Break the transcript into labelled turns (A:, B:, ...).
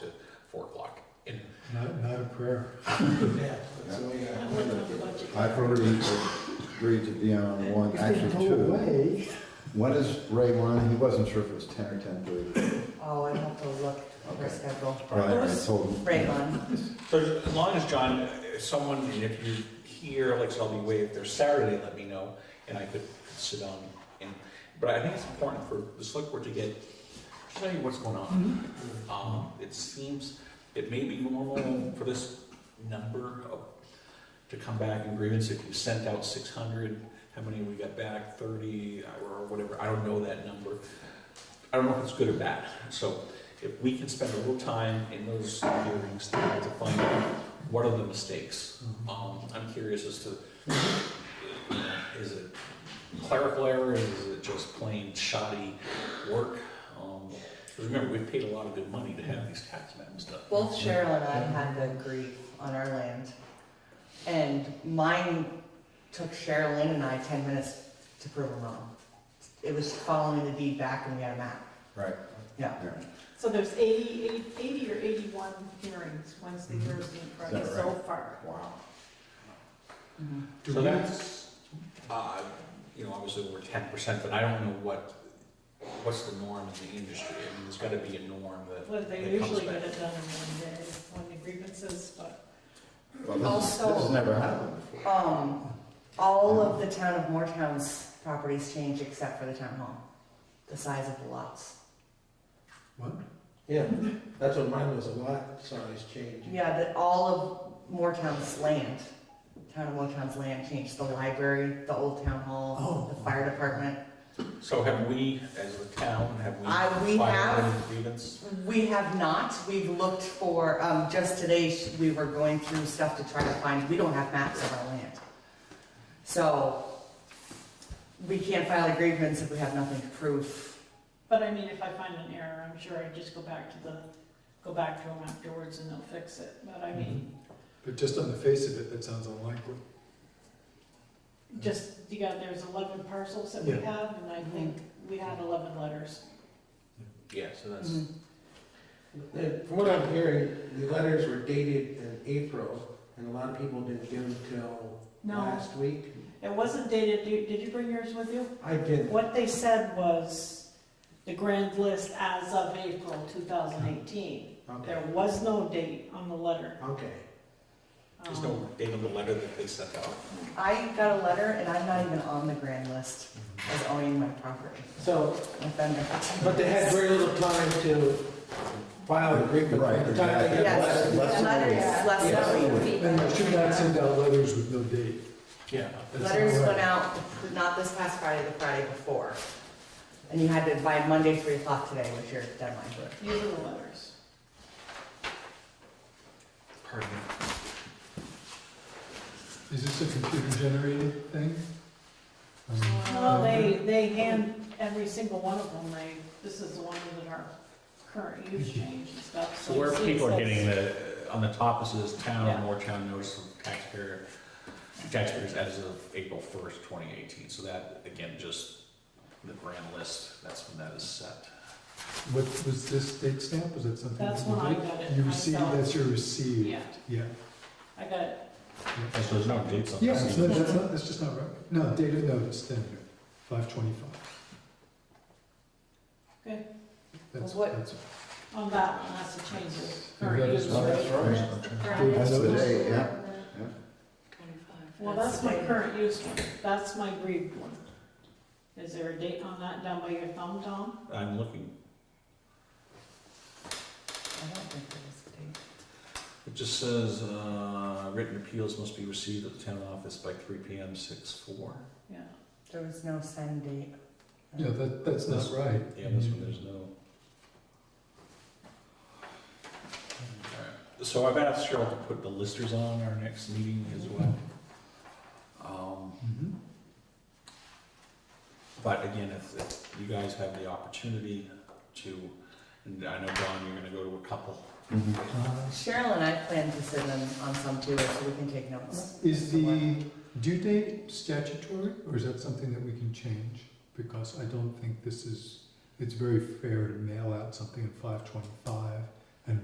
A: Not, not a prayer.
B: Yeah, that's all I got.
C: I've already agreed to be on one, actually two.
A: away.
C: When is Ray one? He wasn't sure if it was ten or ten thirty.
D: Oh, I have to look at their
C: Okay.
D: schedule.
C: Right, I told him.
D: Right on.
B: So as long as John, if someone, and if you're here, like Shelby Way, if there's Saturday, let me know, and I could sit on. And, but I think it's important for the select board to get, tell you what's going on. Um, it seems, it may be normal for this number of, to come back in grievance, if you sent out six hundred, how many we got back, thirty, or whatever, I don't know that number. I don't know if it's good or bad, so if we can spend a little time in those hearings to to find out what are the mistakes. Um, I'm curious as to, you know, is it clerical error, is it just plain shoddy work? Um, 'cause Remember, we've paid a lot of good money to have these tax maps done.
D: Both Cheryl and I had the grief on our land. And mine took Cheryl Lynn and I ten minutes to prove them wrong. It was following the deed back and we had a map.
C: Right.
D: Yeah.
E: So there's 80 80 80 or eighty-one hearings, Wednesday,
A: Mhm.
E: Thursday, and Friday
C: Is that
E: so
C: right?
E: far.
C: Wow.
A: Do
B: So
A: we-
B: that's, uh, you know, obviously over ten percent, but I don't know what, what's the norm in the industry? I mean, there's gotta be a norm that.
E: Well, they
B: that comes
E: usually
B: back.
E: get it done in one day, one the grievances, but
C: Well, this,
D: Also-
C: this has never happened before.
D: Um, all of the town of Moortown's properties changed except for the town hall, the size of the lots.
A: What?
F: Yeah, that's what mine was, a lot size change.
D: Yeah, that all of Moortown's land, town of Moortown's land changed, the library, the old town hall,
A: Oh.
D: the fire department.
B: So have we, as a town, have we?
D: I- Uh, we
B: filed
D: have-
B: any Grievance?
D: We have not, we've looked for, um, just today, sh- we were going through stuff to try to find, we don't have maps of our land. So, we can't file a grievance if we have nothing to prove.
E: but I mean, if I find an error, I'm sure I just go back to the, go back to them afterwards and they'll fix it. But I mean,
A: Mhm. But just on the face of it, that sounds unlikely.
E: just, you got, there's eleven parcels that we
A: Yeah.
E: have, and I think we had eleven letters.
B: Yeah, so that's,
F: Mm-hmm.
D: Mhm.
F: And From what I'm hearing, the letters were dated in April, and a lot of people didn't get them till
E: No,
F: last week.
E: it wasn't dated, did did you bring yours with you?
F: I didn't.
E: What they said was the grand list as of April two thousand eighteen.
F: Okay,
E: There was no date on the letter.
F: okay.
B: there's
E: Um,
B: no date on the letter that they sent out.
D: I got a letter and I'm not even on the grand list as owning my property.
F: So,
D: I've been there.
F: but they had very little time to file the agreement.
C: Right,
F: The time they got
D: Yes,
F: letters-
C: Less- less than a week.
D: letters, less
F: Yes.
D: than a week.
A: And I should not send out letters with no date.
B: Yeah.
A: That's not
D: Letters
A: right.
D: went out, not this past Friday, the Friday before. And you had to, by Monday, three o'clock today was your deadline.
E: Um, These are the letters.
B: Pardon me.
A: Is this a computer generated thing? Um,
E: Well, they, they hand every single one of them, they, this is the one that are current use change and stuff.
B: So where
E: you see
B: people are
E: it says-
B: getting the, on the top, it says
E: Yeah.
B: town, more town notice of taxpayer, taxpayers as of April first, twenty eighteen. So that, again, just the grand list, that's when that is set.
A: What, was this date stamp? Was that something?
E: That's
A: that you
E: when I
A: did?
E: got it
A: You received,
E: myself.
A: that's your received.
E: Yeah,
A: Yeah.
E: I got it.
B: And so there's no dates on
A: Yeah,
B: this.
A: so that's not, that's just not right. No, date of notice, then, five twenty-five.
E: Okay.
A: That's,
D: Well, what-
A: that's.
E: On that one, that's the change of
A: Yeah,
E: current
A: that is
E: use.
C: Oh,
E: rate.
C: that's right.
A: That's
C: That's the
A: notice.
C: day, yeah.
E: Well, that's my current use one, that's my grieved one. Is there a date on that down by your thumb, Tom?
B: I'm looking,
D: I don't think there was a date.
B: it just says, uh, written appeals must be received at the town office by three P M, six four.
E: Yeah.
D: There was no send date.
A: Yeah, that, that's not right.
B: Yeah, this one, there's no. Alright, So I've asked Cheryl to put the listers on our next meeting as well. Um,
A: Mhm.
B: But again, if, if you guys have the opportunity to, and I know, Don, you're gonna go to a couple.
C: Mhm.
A: Uh,
D: Cheryl and I plan to sit in on some too, so we can take notes.
A: Is the due date statutory, or is that something that we can change? Because I don't think this is, it's very fair to mail out something at five twenty-five